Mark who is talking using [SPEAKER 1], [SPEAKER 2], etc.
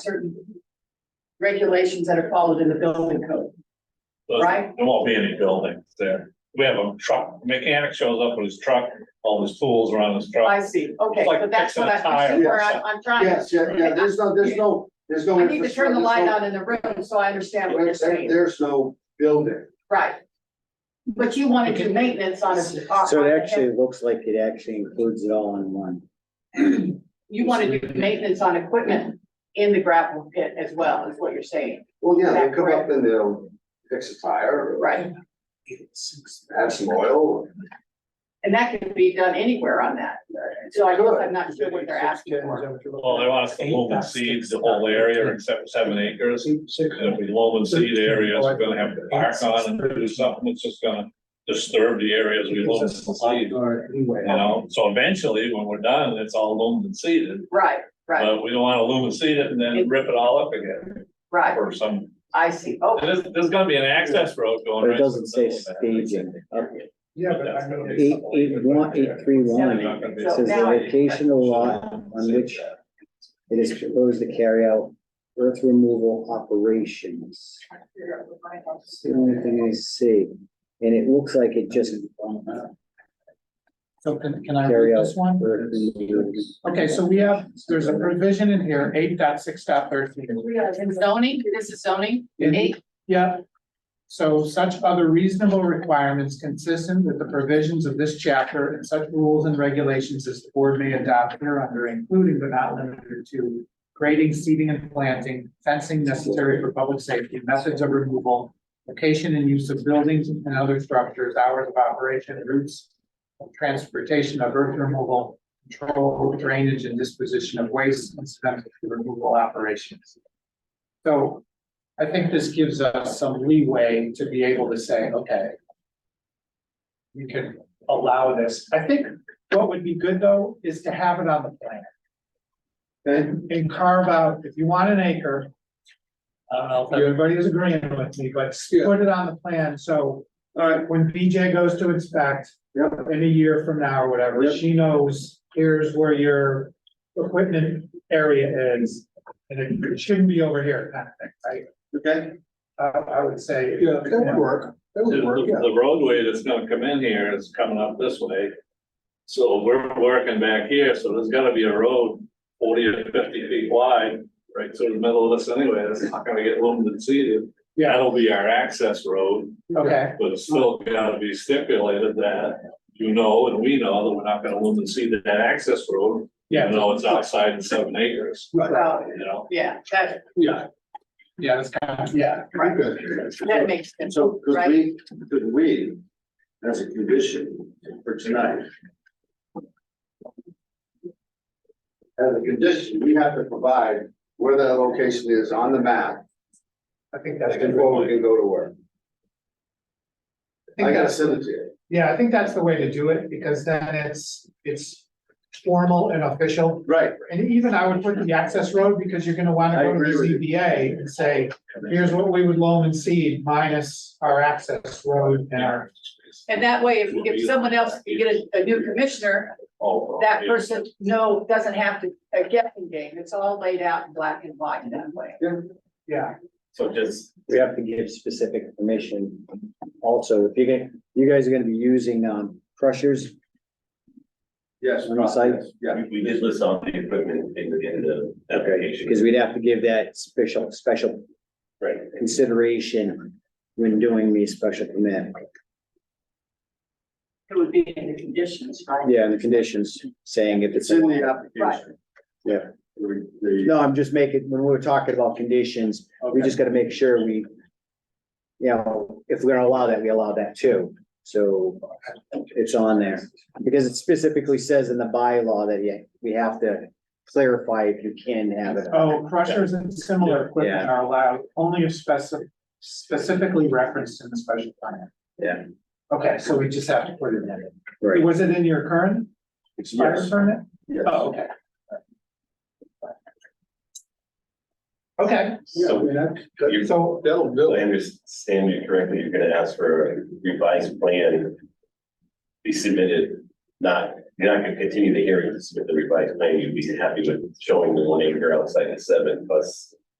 [SPEAKER 1] certain regulations that are followed in the building code, right?
[SPEAKER 2] There won't be any buildings there. We have a truck, mechanic shows up with his truck, all his tools are on his truck.
[SPEAKER 1] I see, okay,
[SPEAKER 2] Like
[SPEAKER 1] but that's what
[SPEAKER 2] fixing a tire
[SPEAKER 1] I,
[SPEAKER 2] or
[SPEAKER 1] where I,
[SPEAKER 2] something.
[SPEAKER 1] I'm trying.
[SPEAKER 3] Yes, yeah, yeah, there's no, there's no, there's no.
[SPEAKER 1] I need to turn the light
[SPEAKER 3] infrastructure,
[SPEAKER 1] on in the room so I understand what you're
[SPEAKER 3] there's no- there-
[SPEAKER 1] saying,
[SPEAKER 3] There's no building.
[SPEAKER 1] right? But you want to do maintenance on a.
[SPEAKER 4] So it actually looks like it actually includes it all in one.
[SPEAKER 1] You want to do maintenance on equipment in the gravel pit as well, is what you're saying,
[SPEAKER 3] Well, yeah, they come up and they'll fix a tire, or
[SPEAKER 1] right?
[SPEAKER 3] add some oil.
[SPEAKER 1] And that can be done anywhere on that, so I guess I'm not sure what they're asking for.
[SPEAKER 2] Well, Oh, they want us to loam and seed the whole area except for seven acres. And if we loam and seed areas, we're gonna have to park on and do something that's just gonna disturb the areas we loam and seed. You know, so eventually, when we're done, it's all loomed and seeded,
[SPEAKER 1] Right, right,
[SPEAKER 2] but we don't wanna loom and seed it and then rip it all up again
[SPEAKER 1] right,
[SPEAKER 2] or some.
[SPEAKER 1] I see, oh,
[SPEAKER 2] There's, there's gonna be an access road going.
[SPEAKER 4] But it
[SPEAKER 2] right through
[SPEAKER 4] doesn't
[SPEAKER 2] the
[SPEAKER 4] say
[SPEAKER 2] middle of that.
[SPEAKER 4] staging.
[SPEAKER 5] Yeah, but I mean,
[SPEAKER 4] Eight, eight, one, eight, three, one, it says the location of the lot on which it is proposed to carry out earth removal operations. It's the only thing I see, and it looks like it just.
[SPEAKER 5] so can, can I
[SPEAKER 4] Carry
[SPEAKER 5] read
[SPEAKER 4] out.
[SPEAKER 5] Uh, this one?
[SPEAKER 4] earth removals.
[SPEAKER 5] Okay, so we have, there's a provision in here, eight dot six dot
[SPEAKER 1] in zoning, this is zoning, eight,
[SPEAKER 5] Yeah. So such other reasonable requirements consistent with the provisions of this chapter and such rules and regulations as the board may adopt hereunder, including but not limited to grading, seeding and planting, fencing necessary for public safety, methods of removal, location and use of buildings and other structures, hours of operation, routes of transportation of earth removal, control of drainage and disposition of waste incidental to removal operations. So I think this gives us some leeway to be able to say, okay. You can allow this. I think what would be good though is to have it on the plan
[SPEAKER 3] Okay,
[SPEAKER 5] and carve out, if you want an acre. I don't know if everybody is agreeing with me, but put it on the plan, so
[SPEAKER 3] all right,
[SPEAKER 5] when BJ goes to inspect.
[SPEAKER 3] Yep.
[SPEAKER 5] In a year from now or whatever,
[SPEAKER 3] Yep.
[SPEAKER 5] she knows, here's where your equipment area is. And it shouldn't be over here, kind of thing, right?
[SPEAKER 3] okay.
[SPEAKER 5] I, I would say.
[SPEAKER 3] Yeah, that would work,
[SPEAKER 2] The
[SPEAKER 3] that would work, yeah.
[SPEAKER 2] the roadway that's gonna come in here is coming up this way. So we're working back here, so there's gotta be a road forty or fifty feet wide, right through the middle of this anyway, that's not gonna get loomed and seeded.
[SPEAKER 5] Yeah.
[SPEAKER 2] That'll be our access road,
[SPEAKER 5] Okay,
[SPEAKER 2] but it's still gotta be stipulated that you know and we know that we're not gonna loom and seed that access road.
[SPEAKER 5] yeah,
[SPEAKER 2] Even though it's outside in seven acres,
[SPEAKER 1] well,
[SPEAKER 2] you know,
[SPEAKER 1] Oh, yeah, that,
[SPEAKER 3] Yeah,
[SPEAKER 5] yeah, that's kind of, yeah,
[SPEAKER 3] pretty good.
[SPEAKER 1] that makes
[SPEAKER 3] And
[SPEAKER 1] sense,
[SPEAKER 3] so, could
[SPEAKER 1] Right.
[SPEAKER 3] we, could we, as a condition for tonight. As a condition, we have to provide where that location is on the map,
[SPEAKER 5] I think that's. good.
[SPEAKER 3] before we can go to work.
[SPEAKER 5] I
[SPEAKER 3] I
[SPEAKER 5] think
[SPEAKER 3] gotta
[SPEAKER 5] that's,
[SPEAKER 3] send it to you.
[SPEAKER 5] yeah, I think that's the way to do it, because then it's, it's formal and official.
[SPEAKER 3] Right,
[SPEAKER 5] And even I would put the access road, because you're gonna wanna
[SPEAKER 3] I
[SPEAKER 5] go to
[SPEAKER 3] agree with you.
[SPEAKER 5] the ZBA and say, here's what we would loan and seed minus our access road and our.
[SPEAKER 1] and that way, if, if someone else, you get a, a new commissioner,
[SPEAKER 6] Oh,
[SPEAKER 2] all.
[SPEAKER 1] that person, no, doesn't have to, a guessing game, it's all laid out in black and white in that way.
[SPEAKER 5] Yeah,
[SPEAKER 2] So just,
[SPEAKER 4] We have to give specific permission. Also, if you get, you guys are gonna be using, um, crushers,
[SPEAKER 3] yes,
[SPEAKER 4] On the site?
[SPEAKER 3] yeah,
[SPEAKER 6] We, we did list all the equipment in, in the application.
[SPEAKER 4] because we'd have to give that special, special
[SPEAKER 6] Right.
[SPEAKER 4] consideration when doing the special permit.
[SPEAKER 1] It would be in the conditions, right?
[SPEAKER 4] Yeah, and the conditions saying if
[SPEAKER 3] it's
[SPEAKER 4] it's.
[SPEAKER 3] in
[SPEAKER 1] Right.
[SPEAKER 3] the application.
[SPEAKER 4] Yeah.
[SPEAKER 3] The- the-
[SPEAKER 4] No, I'm just making, when we were talking about conditions, we just gotta make sure we. You know, if we're gonna allow that, we allow that too, so it's on there, because it specifically says in the bylaw that you, we have to. Clarify if you can have it.
[SPEAKER 5] oh, crushers and similar equipment
[SPEAKER 4] Yeah.
[SPEAKER 5] are allowed only if specific, specifically referenced in the special plan.
[SPEAKER 4] Yeah.
[SPEAKER 5] Okay, so we just have to put it in.
[SPEAKER 4] Right.
[SPEAKER 5] Was it in your current
[SPEAKER 3] It's
[SPEAKER 5] fire
[SPEAKER 3] yes,
[SPEAKER 5] permit?
[SPEAKER 3] yes.
[SPEAKER 5] Oh, okay. Okay,
[SPEAKER 3] Yeah, I mean, that-
[SPEAKER 6] You-
[SPEAKER 3] that-
[SPEAKER 5] so,
[SPEAKER 3] that'll do.
[SPEAKER 6] If I
[SPEAKER 3] it.
[SPEAKER 6] understand you correctly, you're gonna ask for a revised plan. Be submitted, not You're not gonna continue the hearing to submit the revised plan, you'd be happy with showing the one acre outside the seven plus